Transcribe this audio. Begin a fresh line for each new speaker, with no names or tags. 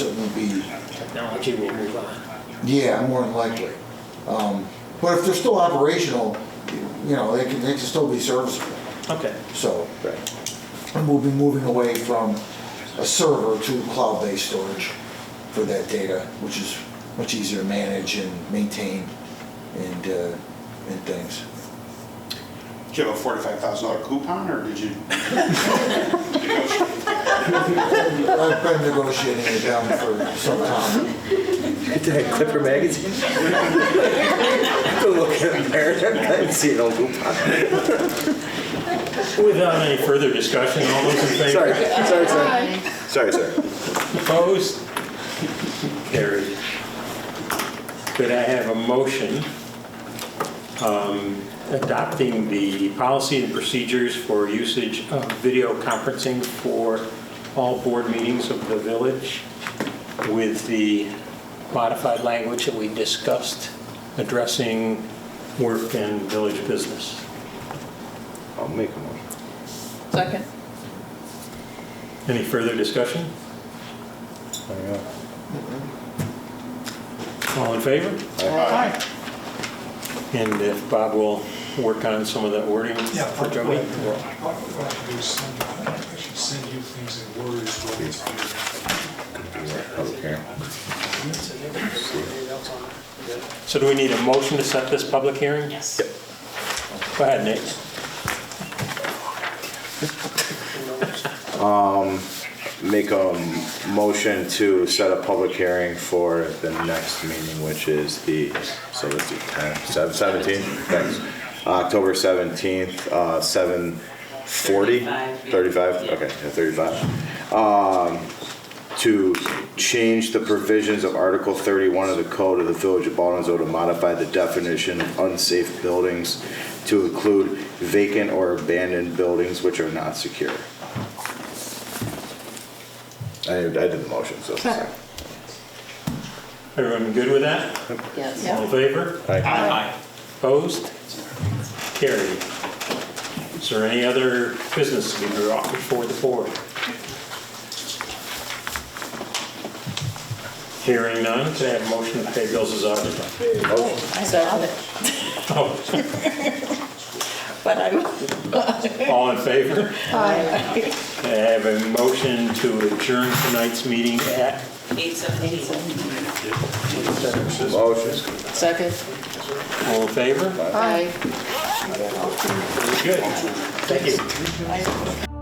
it would be,
technology will move on.
yeah, more than likely. Um, But if they're still operational, you know, they can, they can still be serviceable,
Okay.
so.
Right.
And we'll be moving away from a server to cloud-based storage for that data, which is much easier to manage and maintain and, uh, and things.
Did you have a forty-five thousand dollar coupon, or did you?
I've been negotiating it down for some time.
Did I Clipper magazine? Go look at it there. I haven't seen an old coupon.
Without any further discussion, all those in favor?
Sorry, sorry, sorry. Sorry, sir.
Opposed? Carried. Could I have a motion um, adopting the policy and procedures for usage of video conferencing for all board meetings of the village with the modified language that we discussed addressing work and village business?
I'll make a motion.
Second.
Any further discussion? All in favor?
Aye.
And if Bob will work on some of that wording for Joey?
What I would do is send, I should send you things in words, what it's
Okay.
So do we need a motion to set this public hearing?
Yes.
Go ahead, Nate.
Make a m- motion to set a public hearing for the next meeting, which is the, so let's do 10, seven- 17? Thanks. October 17th, uh, 7:40? 35, okay, yeah, 35. Um, to change the provisions of Article 31 of the Code of the Village of Baldwinsville to modify the definition of unsafe buildings to include vacant or abandoned buildings which are not secure. I, I did the motion, so.
Second.
Everyone good with that? All in
Yes.
favor?
Aye.
Opposed? Carried. Is there any other business to be brought before the board? Hearing none, can I have a motion to pay bills as audited?
I saw it,
Oh,
but I,
All in favor?
I.
Can I have a motion to adjourn tonight's meeting at
Eight seventeen.
Motion.
Second.
All in favor?
Aye.
Very good. Thank you.